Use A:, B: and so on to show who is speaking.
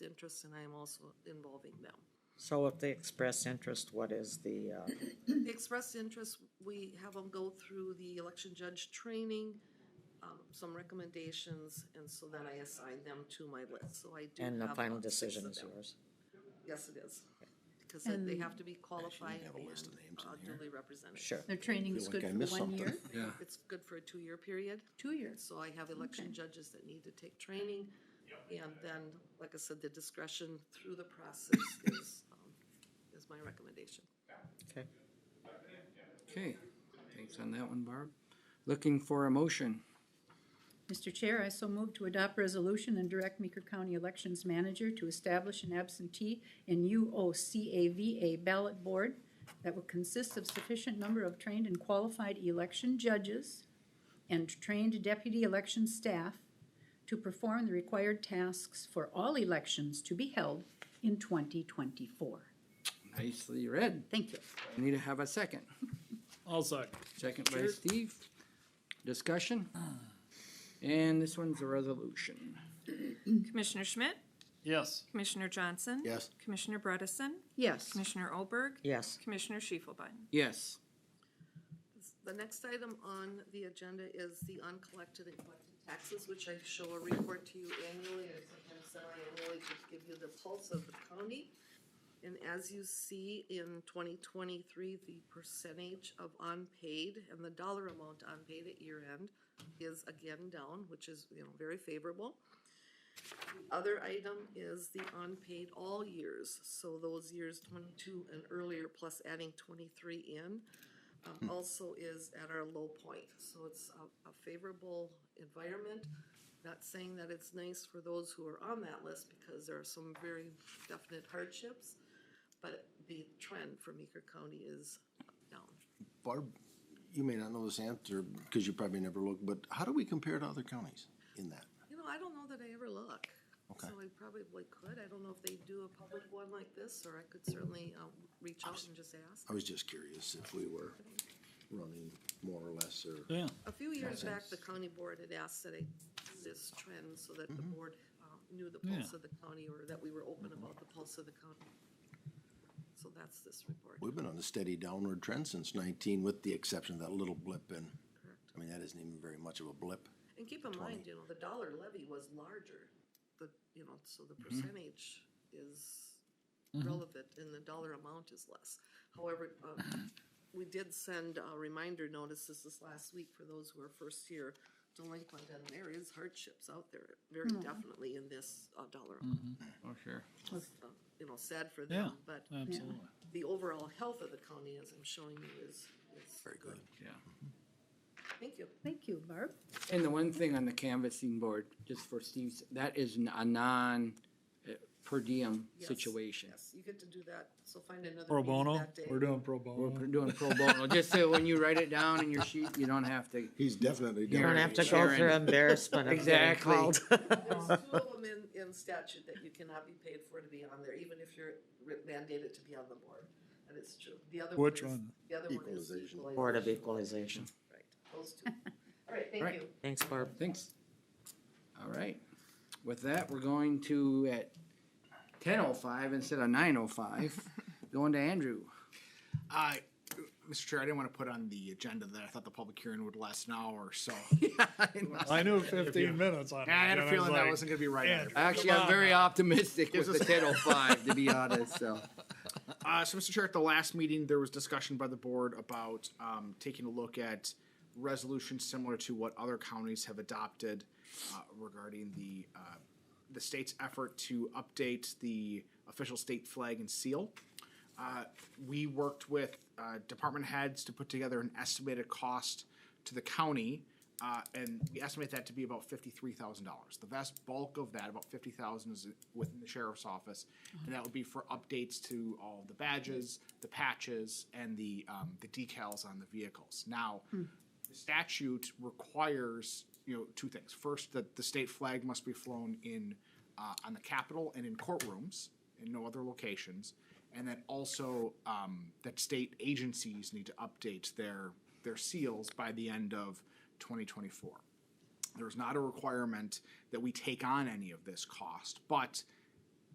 A: interest and I am also involving them.
B: So if they express interest, what is the, uh,
A: The Expressed interest, we have them go through the election judge training, um, some recommendations, and so then I assign them to my list, so I do
B: and the
A: have
B: final
A: about six
B: decision
A: of
B: is
A: them.
B: yours?
A: Yes, it is, because they- they have to be qualified
C: have a
A: and
C: list of names in
A: uh,
C: here. Ah.
A: duly represented.
B: Sure.
D: Their training's
C: Feel like
D: good
C: I
D: for
C: missed
D: one
C: something.
D: year,
E: Yeah,
A: It's good for a two-year period.
D: two years.
A: So I have election
D: Okay.
A: judges that need to take training. And then, like I said, the discretion through the process is, um, is my recommendation.
B: Okay.
E: okay, thanks on that one, Barb. Looking for a motion,
D: Mr. Chair, I so move to adopt resolution and direct Meeker County Elections Manager to establish an absentee and UOCAVA ballot board that will consist of sufficient number of trained and qualified election judges and trained deputy election staff to perform the required tasks for all elections to be held in twenty twenty-four.
E: nicely read,
D: Thank you.
E: I need to have a second,
F: I'll second.
E: second by Steve, discussion. And this one's a resolution,
G: Commissioner Schmidt,
F: Yes.
G: Commissioner Johnson.
C: Yes.
G: Commissioner Bredesen,
D: Yes.
G: Commissioner Olberg,
B: Yes,
G: Commissioner Schiefelbein.
E: yes,
A: The next item on the agenda is the uncollected and collected taxes, which I show a report to you annually and sometimes semi-annually to give you the pulse of the county. And as you see in twenty twenty-three, the percentage of unpaid and the dollar amount unpaid at year end is again down, which is, you know, very favorable. The Other item is the unpaid all years, so those years twenty-two and earlier, plus adding twenty-three in um, also is at our low point. So it's a, a favorable environment. Not saying that it's nice for those who are on that list because there are some very definite hardships, but the trend for Meeker County is down.
C: Barb, you may not know this answer because you probably never looked, but how do we compare to other counties in that?
A: You know, I don't know that I ever look.
C: Okay.
A: So I probably could. I don't know if they do a public one like this, or I could certainly, um, reach out and just ask.
C: I was just curious if we were running more or less or.
F: Yeah.
A: A few years back, the county board had asked that I do this trend so that the board um, knew the pulse
F: Yeah.
A: of the county or that we were open about the pulse of the county. So that's this report.
C: We've been on a steady downward trend since nineteen, with the exception of that little blip in, I mean, that isn't even very much of a blip.
A: And keep in mind, you know, the dollar levy was larger, the, you know, so the percentage is relevant and the dollar amount is less. However, um, we did send uh, reminder notices this last week for those who are first year delinquent, and there is hardships out there, very definitely in this uh, dollar amount.
E: oh, sure,
A: uh, you know, sad for
F: Yeah,
A: them, but
F: absolutely.
A: the overall health of the county, as I'm showing you, is, is
C: Very good.
E: yeah.
A: Thank you.
D: Thank you, Barb.
E: And the one thing on the canvassing board, just for Steve's, that is n- a non uh, per diem
A: Yes,
E: situation.
A: Yes, you get to do that, so find another.
F: Pro
A: meeting
F: bono?
A: that day.
F: We're doing pro
E: We're
F: bono.
E: pr- doing pro bono, just so when you write it down in your sheet, you don't have to.
C: He's definitely.
B: you don't have to go
E: Sharon.
B: through embarrassment of getting
E: Exactly.
B: called.
A: There's two of them in, in statute that you cannot be paid for to be on there, even if you're re- mandated to be on the board. That is true. The other.
F: Which
A: is-
F: one?
A: The other one is
C: Equalization.
A: equalization.
B: Board of Equalization.
A: Right, those two. All right, thank
E: Right.
A: you.
B: Thanks, Barb.
E: Thanks. All right. With that, we're going to at ten oh five instead of nine oh five, going to Andrew.
H: Uh, Mr. Chair, I didn't want to put on the agenda that I thought the public hearing would last an hour or so.
F: I knew fifteen minutes on it.
H: I had a
F: and
H: feeling that
F: like,
H: wasn't going to be right. either.
F: Andrew.
E: Actually,
F: Come
E: I'm
F: on
E: very
F: now.
E: optimistic with the ten oh five, to be honest, so.
H: Uh, so, Mr. Chair, at the last meeting, there was discussion by the board about um, taking a look at resolutions similar to what other counties have adopted uh, regarding the uh, the state's effort to update the official state flag and seal. Uh, we worked with uh, department heads to put together an estimated cost to the county, uh, and we estimate that to be about fifty-three thousand dollars. The vast bulk of that, about fifty thousand, is within the sheriff's office, and that would be for updates to all the badges, the patches, and the um, the decals on the vehicles. Now, the statute requires you know two things. First, that the state flag must be flown in uh, on the Capitol and in courtrooms in no other locations, and then also um, that state agencies need to update their their seals by the end of 2024. There's not a requirement that we take on any of this cost, but